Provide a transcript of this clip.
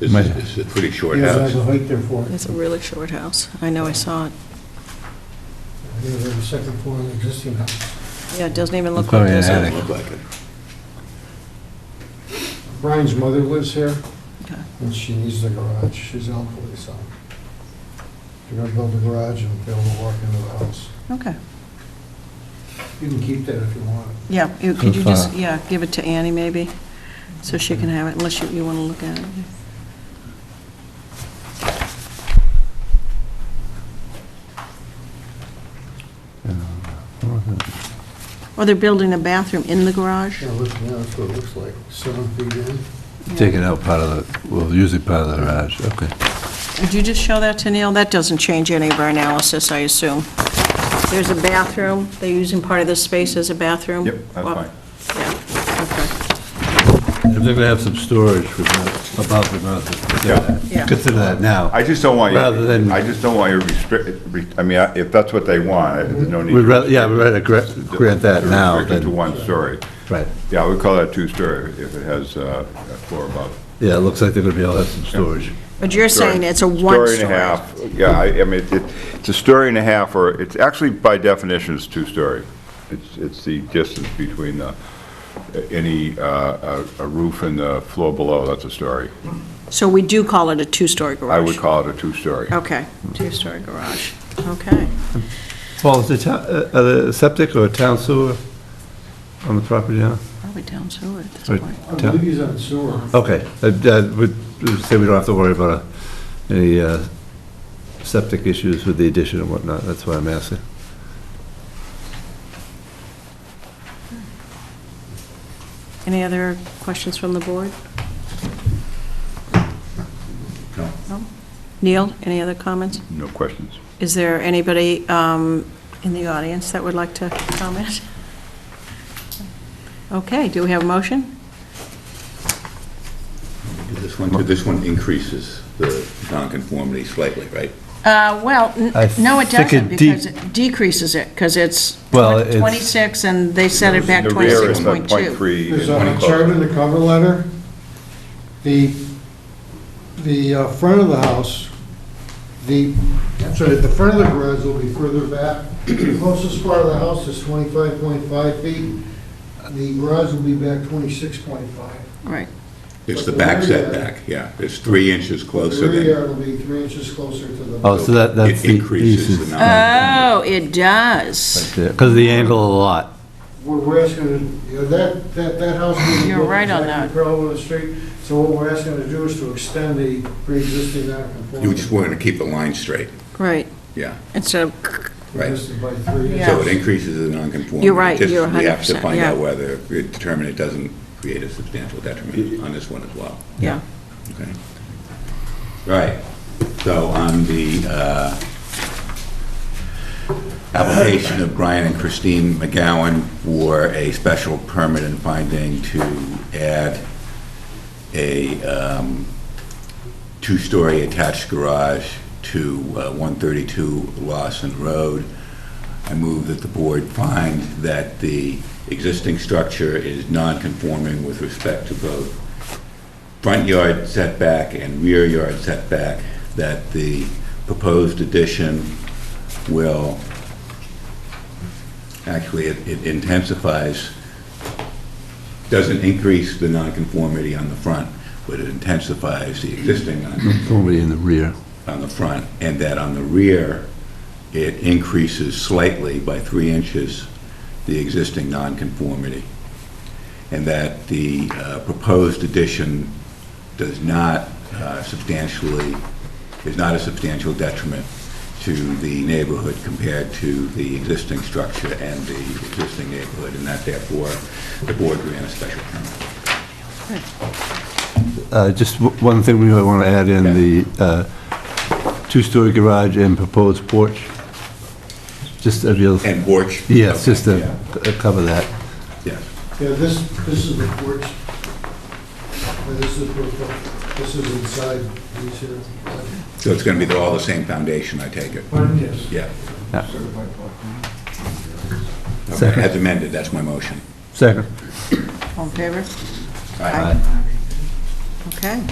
It's, Might- it's a pretty short Yeah, there's house. a height there for it. It's a really short house. I know, I saw it. Yeah, There's a second floor in the existing house. Yeah, it doesn't even It's look like probably an there's Doesn't attic. a... look like it. Brian's mother lives here, Okay. and she needs the garage. She's elderly, so they're gonna build a garage and be able to walk into the house. Okay, You can keep that if you want. yeah, you- could you Good just, thought. yeah, give it to Annie maybe, so she can have it, unless you, you want to look at it. Uh, Or Oh, they're building a bathroom in the garage? Yeah, look, yeah, that's what it looks like, seven feet in. Yeah. Take it out part of the, well, usually part of the garage, okay. Would you just show that to Neil? That doesn't change any of our analysis, I assume. There's a bathroom, they're using part of this space as a bathroom? Yep, that's Well, fine. Yeah, If they're gonna have some storage for the, above the Yeah. garage, consider that now. I just don't want you, Rather than- I just don't want you restrict, re- I mean, I- if that's what they want, I- there's no need. We'd rather, yeah, we'd rather gra- grant that to now restrict it To than, one story. right. Yeah, we call that two-story if it has uh, a floor above. Yeah, it looks like they're gonna be able to have some storage. But you're saying it's a Story one-story? and a half, yeah, I I mean, it- it's a story and a half, or it's actually by definition, it's two-story. It's, it's the distance between the, any, uh, a a roof and the floor below, that's a story. So we do call it a two-story garage? I would call it a two-story. Okay, two-story garage, okay. Paul, is the town, uh, uh, the septic or town sewer on the property now? Probably down sewer at this Or point. I town- believe he's on sewer. Okay, I would say we don't have to worry about uh, any uh, septic issues with the addition and whatnot, that's why I'm asking. Any other questions from the board? No. Neil, any other comments? No questions. Is there anybody um, in the audience that would like to comment? Okay, do we have a motion? This one, this one increases the nonconformity slightly, right? Uh, Well, n- I no, it think doesn't, it de- because it decreases it, because it's Well, it's- 26, and they set it back The rear is 26.2. 0.3. There's and a chart in uh, the cover letter. The, the uh, front of the house, the, I'm sorry, the front of the garage will be further back. The closest part of the house is 25.5 feet. The garage will be back 26.5. Right, It's the back setback, yeah. It's three inches The closer rear than. yard will be three inches closer to the. Oh, so that, that's It the increases the easement. nonconformity. Oh, it does. Because of the angle of the lot. We're- We're asking, you know, that, that, that house. will be You're right on exactly that. Parallel to the street, so what we're asking to do is to extend the pre-existing non-conformity. You just wanted to keep the line straight, Right, yeah, instead of, right. This is by three. Yeah. So it increases the nonconformity. You're right, Just you're We have to 100%, find yeah. out whether, determine it doesn't create a substantial detriment on this one as well. yeah. Okay. Right, so on the uh, application of Brian and Christine McGowan for a special permit and finding to add a um, two-story attached garage to uh, 132 Lawson Road, I move that the board find that the existing structure is non-conforming with respect to both front yard setback and rear yard setback, that the proposed addition will, actually, it it intensifies, doesn't increase the nonconformity on the front, but it intensifies the existing non- Nobody in the rear. on the front, and that on the rear, it increases slightly by three inches the existing nonconformity, and that the uh, proposed addition does not uh, substantially, is not a substantial detriment to the neighborhood compared to the existing structure and the existing neighborhood, and that therefore, the board grant a special permit. Uh, Just w- one thing we might want to add in, the uh, two-story garage and proposed porch. Just a real, And porch? yes, just to Yeah, c- cover that. Yes. Yeah, this, this is the porch. And This is, the- this is inside, these here. So it's going to be all the same foundation, I take it? But yes. Yeah. Certified plot. Okay, Second. as amended, that's my motion. Second. All in favor? Aye. Okay.